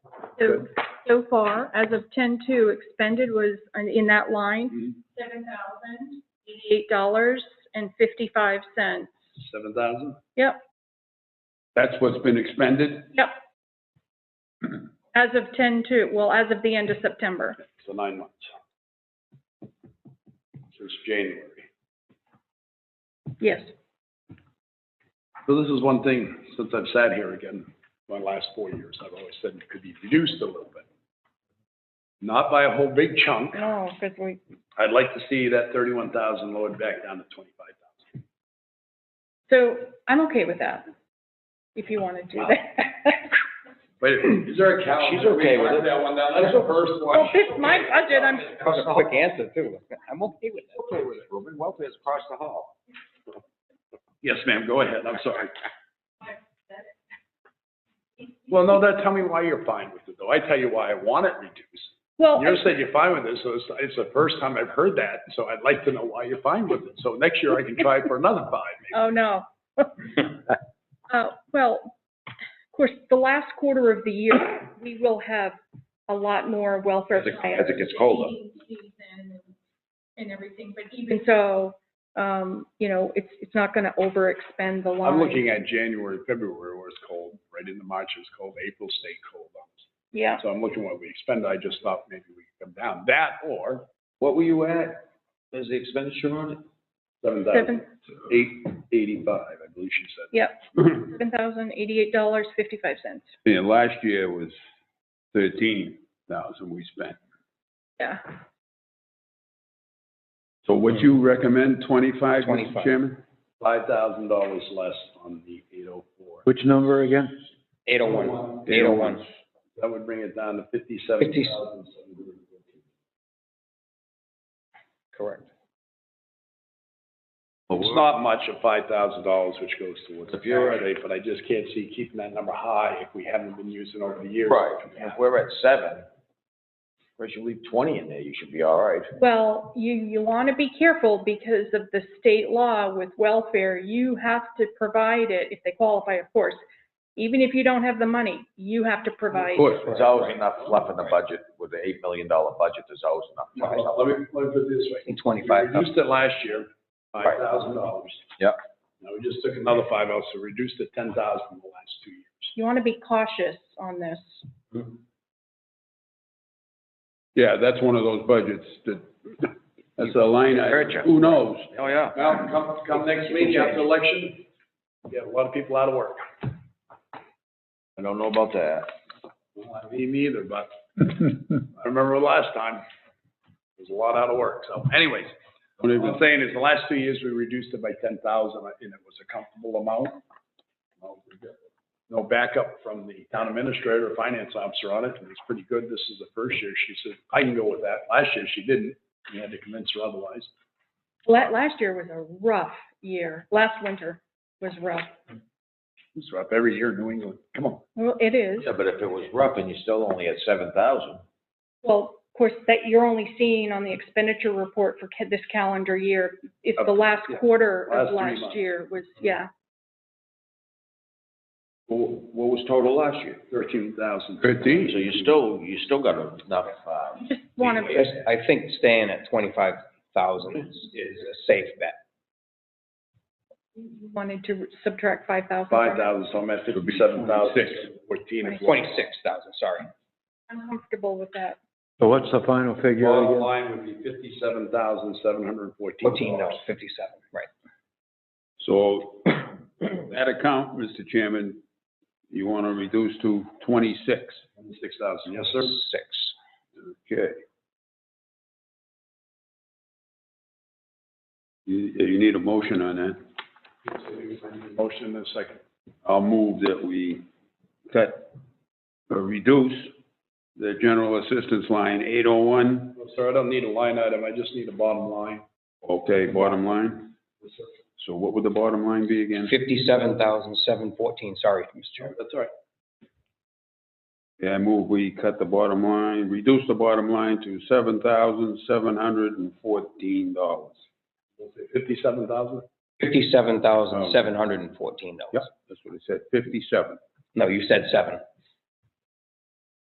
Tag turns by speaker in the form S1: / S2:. S1: So, so far, as of ten-two, expended was, uh, in that line, seven thousand eighty-eight dollars and fifty-five cents.
S2: Seven thousand?
S1: Yep,
S2: That's what's been expended?
S1: yep. As of ten-two, well, as of the end of September.
S2: So nine months. Since January.
S1: Yes.
S2: So this is one thing, since I've sat here again, my last four years, I've always said it could be reduced a little bit. Not by a whole big chunk.
S1: No, because we.
S2: I'd like to see that thirty-one thousand lowered back down to twenty-five thousand.
S1: So I'm okay with that, if you want to do that.
S2: Wait, is there a count?
S3: She's okay with it.
S2: That one, down. that's the first one.
S1: Well, it's my budget, I'm,
S3: That was a quick answer too. I'm okay with that.
S2: Okay with it.
S3: Roman welfare's across the hall.
S2: Yes, ma'am, go ahead, I'm sorry. Well, no, that, tell me why you're fine with it, though. I tell you why I want it reduced.
S1: well,
S2: You said you're fine with it, so it's, it's the first time I've heard that, so I'd like to know why you're fine with it. So next year I can try for another five,
S1: oh, no. Uh, well, of course, the last quarter of the year, we will have a lot more welfare
S3: As it-
S1: plans.
S3: as it gets colder.
S1: And everything, but even so, um, you know, it's, it's not going to overexpend the
S2: maybe.
S1: line.
S2: I'm looking at January, February where it's cold, right into March it's cold, April stay cold.
S1: Yeah,
S2: So I'm looking what we expend, I just thought maybe we could come down, that or
S3: What were you at? Is the expenditure on it?
S2: seven thousand
S1: seven,
S2: eight eighty-five, I believe she said.
S1: yep, seven thousand eighty-eight dollars, fifty-five cents.
S4: And last year was thirteen thousand we spent.
S1: Yeah.
S4: So what you recommend, twenty-five, Mr.
S3: 25.
S4: Chairman?
S2: Five thousand dollars less on the eight oh four.
S4: Which number again?
S3: Eight oh one. Eight oh one.
S2: That would bring it down to fifty-seven thousand seven hundred and fifty.
S3: Correct.
S4: Oh,
S2: It's not much of five thousand dollars, which goes towards the
S3: If you're
S2: tax rate, but I just can't see keeping that number high if we haven't been using over the years.
S3: Right. If we're at seven, whereas you leave twenty in there, you should be all right.
S1: Well, you, you want to be careful because of the state law with welfare. You have to provide it, if they qualify, of course. Even if you don't have the money, you have to provide.
S4: Of course.
S3: There's always enough fluff in the budget. With the eight million dollar budget, there's always enough. fluff.
S2: Well, Let me, let me put it this way. We reduced it last year, five thousand dollars.
S3: Yep.
S2: Now, we just took another five out, so reduced it ten thousand in the last two years.
S1: You want to be cautious on this.
S4: Yeah, that's one of those budgets that, that's a line
S3: Hurt ya.
S4: item. Who knows?
S3: Oh, yeah.
S2: Well, come, come next meeting after election, get a lot of people out of work.
S3: I don't know about that.
S2: Well, Me neither, but I remember last time, there was a lot out of work, so anyways. What I've been saying is the last two years, we reduced it by ten thousand, and it was a comfortable amount. Well, we got No backup from the town administrator or finance officer on it, and it's pretty good. This is the first year she said, I can go with that. Last year, she didn't. We had to convince her otherwise.
S1: La- last year was a rough year. Last winter was rough.
S2: It's rough every year in New England. Come on.
S1: Well, it is.
S3: Yeah, but if it was rough and you still only at seven thousand,
S1: Well, of course, that you're only seeing on the expenditure report for ca- this calendar year. If the last
S2: Yeah.
S1: quarter
S2: Last
S1: of
S2: three
S1: last
S2: months. Mm-hmm.
S1: year was, yeah,
S3: what was total last year?
S2: Thirteen thousand.
S3: So
S4: Thirteen?
S3: you still, you still got enough, uh,
S1: you just want to.
S5: Yes, I think staying at twenty-five thousand is, is a safe bet.
S1: wanted to subtract five thousand.
S2: Five thousand, so I'm at
S4: It'll be
S2: fifty-seven thousand,
S4: 26.
S2: fourteen. if you want.
S5: Twenty-six thousand, sorry.
S1: I'm comfortable with that.
S4: So what's the final
S2: Bottom line would be fifty-seven thousand, seven hundred and fourteen
S5: Fourteen, no,
S2: dollars.
S5: fifty-seven, right.
S4: So that account, Mr. Chairman, you want to reduce to twenty-six.
S2: Six thousand, yes, sir.
S5: Six.
S4: Okay. You, you need a motion on that?
S2: Motion in a second.
S4: I'll move that we cut or reduce the general assistance line eight oh one,
S2: No, Sir, I don't need a line item, I just need a bottom line.
S4: okay, bottom line.
S2: Yes, sir.
S4: So what would the bottom line be again?
S5: Fifty-seven thousand, seven fourteen, sorry, Mr. Chairman.
S2: That's all right.
S4: Yeah, I move we cut the bottom line, reduce the bottom line to seven thousand seven hundred and fourteen dollars.
S2: Fifty-seven thousand?
S5: Fifty-seven thousand, seven hundred and fourteen dollars.
S4: That's what it said, fifty-seven.
S5: No, you said seven.